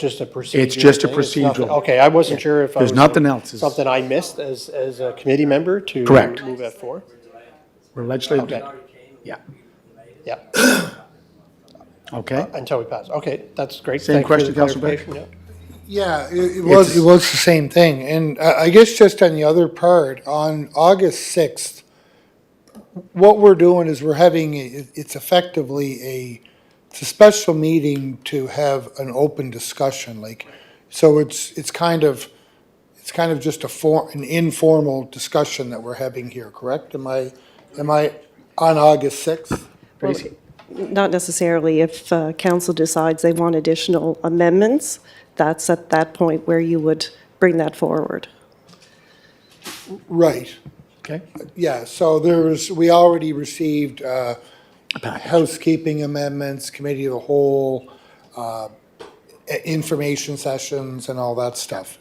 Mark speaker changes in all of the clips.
Speaker 1: Just a procedural.
Speaker 2: It's just a
Speaker 1: thing? It's nothing-
Speaker 2: procedural.
Speaker 1: Okay, I wasn't sure if. I
Speaker 2: There's
Speaker 1: was-
Speaker 2: nothing else. It's-
Speaker 1: Something I missed as, as a committee member to.
Speaker 2: Correct.
Speaker 1: Move that forward.
Speaker 2: We're legislative,
Speaker 1: Okay.
Speaker 2: yeah,
Speaker 1: Yeah,
Speaker 2: okay?
Speaker 1: until we pass. Okay, that's great.
Speaker 2: Same
Speaker 1: Thank you for
Speaker 2: question,
Speaker 1: the
Speaker 2: Councilor Beck?
Speaker 1: clarification, yeah.
Speaker 3: Yeah, it, it was, it was the same thing. And I, I guess just on the other part, on August sixth, what we're doing is we're having, a- it's effectively a, it's a special meeting to have an open discussion, like, so it's, it's kind of, it's kind of just a for, an informal discussion that we're having here, correct? Am I, am I on August sixth?
Speaker 2: Tracy?
Speaker 4: Not necessarily. If uh, council decides they want additional amendments, that's at that point where you would bring that forward.
Speaker 3: Right,
Speaker 2: Okay,
Speaker 3: yeah, so there's, we already received, uh, housekeeping amendments, committee of the whole, uh, i- information sessions and all that stuff.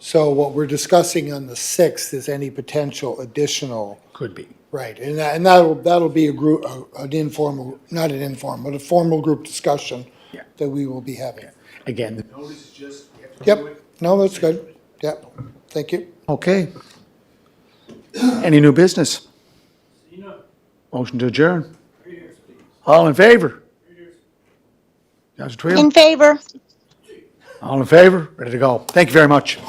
Speaker 3: So what we're discussing on the 6th is any potential additional,
Speaker 2: could be.
Speaker 3: right, and that, and that'll, that'll be a group, an informal, not an informal, but a formal group discussion
Speaker 2: Yeah.
Speaker 3: that we will be having.
Speaker 2: Again,
Speaker 3: Yep, no, that's good, yep, thank you.
Speaker 2: okay. Any new business? Motion to adjourn. All in favor? Counselor Twill?
Speaker 5: In favor.
Speaker 2: All in favor? Ready to go. Thank you very much.